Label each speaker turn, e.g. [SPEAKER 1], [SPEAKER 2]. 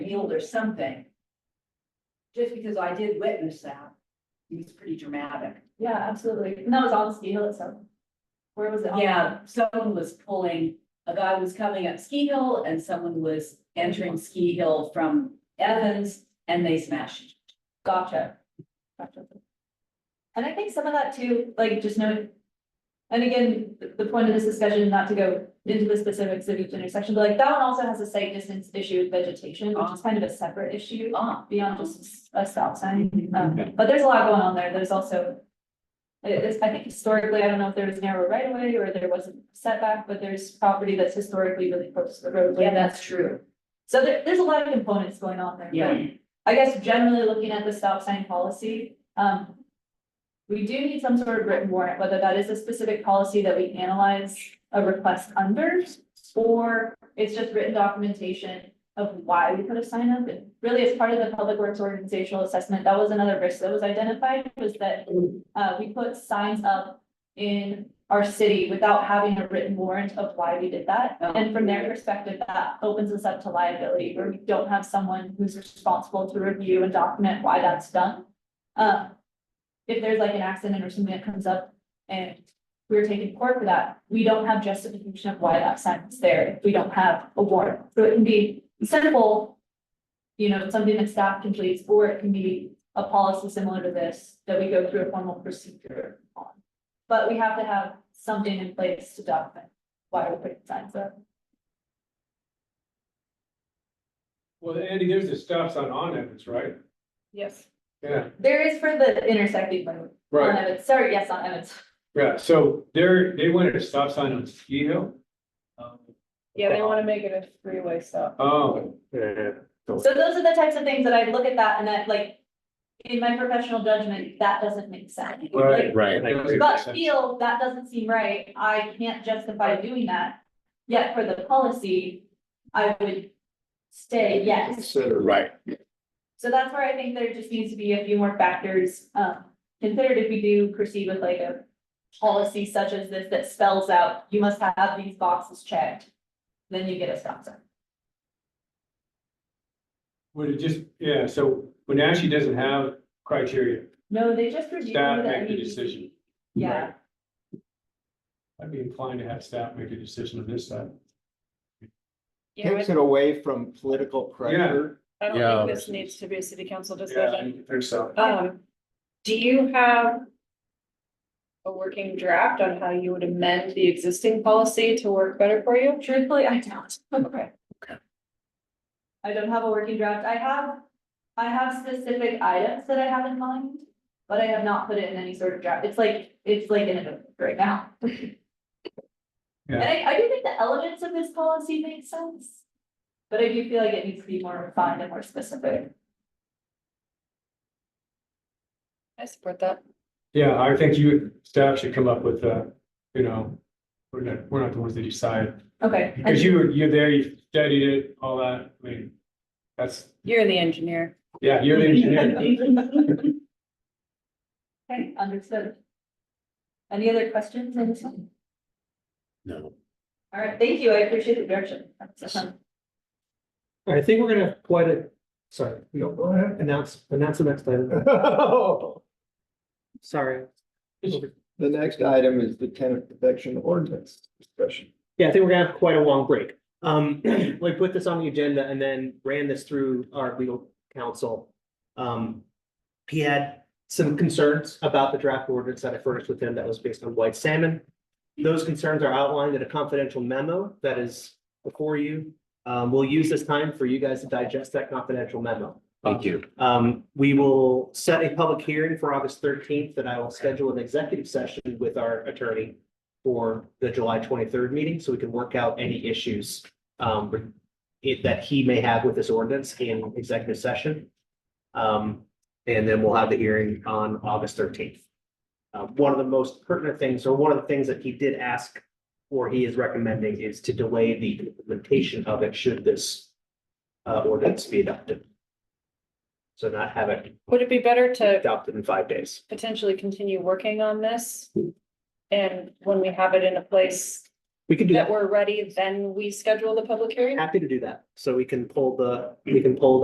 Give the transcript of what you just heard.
[SPEAKER 1] field or something. Just because I did witness that, it's pretty dramatic.
[SPEAKER 2] Yeah, absolutely. And that was on Ski Hill itself. Where was it?
[SPEAKER 1] Yeah, someone was pulling, a guy was coming up Ski Hill and someone was entering Ski Hill from Evans and they smashed.
[SPEAKER 2] Gotcha. Gotcha. And I think some of that too, like just note. And again, the- the point of this discussion, not to go into the specifics of each intersection, but like that one also has a site distance issue with vegetation, which is kind of a separate issue.
[SPEAKER 1] Ah,
[SPEAKER 2] Beyond just a stop sign, um,
[SPEAKER 1] Mm-hmm.
[SPEAKER 2] but there's a lot going on there. There's also. It is, I think historically, I don't know if there was narrow right of way or there wasn't setback, but there's property that's historically really close to the roadway.
[SPEAKER 1] yeah, that's true.
[SPEAKER 2] So there, there's a lot of components going on there. but
[SPEAKER 1] Yeah.
[SPEAKER 2] I guess generally looking at the stop sign policy, um. We do need some sort of written warrant, whether that is a specific policy that we analyze a request under. Or it's just written documentation of why we put a sign up and really as part of the public works organizational assessment, that was another risk that was identified was that. Uh, we put signs up in our city without having a written warrant of why we did that.
[SPEAKER 1] Oh.
[SPEAKER 2] And from their perspective, that opens us up to liability where we don't have someone who's responsible to review and document why that's done. Uh, if there's like an accident or something that comes up and we're taking court for that, we don't have justification of why that sentence there, if we don't have a warrant. So it can be simple, you know, something that staff completes, or it can be a policy similar to this, that we go through a formal procedure on. But we have to have something in place to document why we're putting signs up.
[SPEAKER 3] Well, Andy, there's a stop sign on Evans, right?
[SPEAKER 2] Yes.
[SPEAKER 3] Yeah,
[SPEAKER 2] There is for the intersecting one, on
[SPEAKER 3] right,
[SPEAKER 2] Evans, sorry, yes, on Evans.
[SPEAKER 3] yeah, so there, they wanted a stop sign on Ski Hill.
[SPEAKER 4] Yeah, they wanna make it a three-way stop.
[SPEAKER 3] Oh,
[SPEAKER 5] Yeah,
[SPEAKER 2] So those are the types of things that I look at that and that like, in my professional judgment, that doesn't make sense.
[SPEAKER 3] Right.
[SPEAKER 2] Like,
[SPEAKER 5] right.
[SPEAKER 2] But feel that doesn't seem right, I can't justify doing that, yet for the policy, I would say yes.
[SPEAKER 5] Right,
[SPEAKER 2] So that's where I think there just needs to be a few more factors, um, considered if we do proceed with like a policy such as this that spells out, you must have these boxes checked, then you get a stop sign.
[SPEAKER 3] would it just, yeah, so Wenatchee doesn't have criteria.
[SPEAKER 2] No, they just review.
[SPEAKER 3] Staff
[SPEAKER 2] that
[SPEAKER 3] make the
[SPEAKER 2] we-
[SPEAKER 3] decision.
[SPEAKER 2] E Yeah,
[SPEAKER 3] Right. I'd be inclined to have staff make a decision on this side.
[SPEAKER 4] Yeah,
[SPEAKER 6] takes it away from political pressure.
[SPEAKER 4] I
[SPEAKER 5] Yeah.
[SPEAKER 4] don't think this needs to be a city council
[SPEAKER 3] Yeah,
[SPEAKER 4] discussion.
[SPEAKER 3] I think so.
[SPEAKER 4] Um, do you have a working draft on how you would amend the existing policy to work better for you?
[SPEAKER 2] truthfully, I don't.
[SPEAKER 4] Okay.
[SPEAKER 2] I don't have a working draft. I have, I have specific items that I have in mind, but I have not put it in any sort of draft. It's like, it's like in a book right now. And I, I do think the elements of this policy make sense, but I do feel like it needs to be more refined and more specific.
[SPEAKER 4] I support that.
[SPEAKER 3] Yeah, I think you, staff should come up with, uh, you know, we're not, we're not the ones that decide,
[SPEAKER 2] Okay.
[SPEAKER 3] because you, were you're there, you studied it, all that, I mean, that's,
[SPEAKER 4] You're the engineer.
[SPEAKER 3] yeah, you're the engineer.
[SPEAKER 2] Okay, understood. Any other questions on this one?
[SPEAKER 5] no.
[SPEAKER 2] All right, thank you. I appreciate the direction. That's, um,
[SPEAKER 7] I think we're gonna have quite a, sorry, we don't go ahead, announce, announce the next
[SPEAKER 6] Uh,
[SPEAKER 7] item.
[SPEAKER 6] The
[SPEAKER 7] Sorry.
[SPEAKER 6] next item is the tenant protection ordinance discussion.
[SPEAKER 7] Yeah, I think we're gonna have quite a long break. Um, we put this on the agenda and then ran this through our legal counsel. Um, he had some concerns about the draft ordinance that I furnished with him that was based on white salmon. Those concerns are outlined in a confidential memo that is before you. Um, we'll use this time for you guys to digest that confidential memo.
[SPEAKER 5] Thank you.
[SPEAKER 7] Um, we will set a public hearing for August thirteenth, and I will schedule an executive session with our attorney for the July twenty-third meeting, so we can work out any issues um, it- that he may have with this ordinance in executive session. Um, and then we'll have the hearing on August thirteenth. Uh, one of the most pertinent things, or one of the things that he did ask, or he is recommending, is to delay the implementation of it should this uh, ordinance be adopted. So not have it
[SPEAKER 4] Would it be better to
[SPEAKER 7] adopted in five days.
[SPEAKER 4] potentially continue working on this? And when we have it in a place
[SPEAKER 7] We can do
[SPEAKER 4] that
[SPEAKER 7] that.
[SPEAKER 4] we're ready, then we schedule the public hearing?
[SPEAKER 7] Happy to do that. So we can pull the, we can pull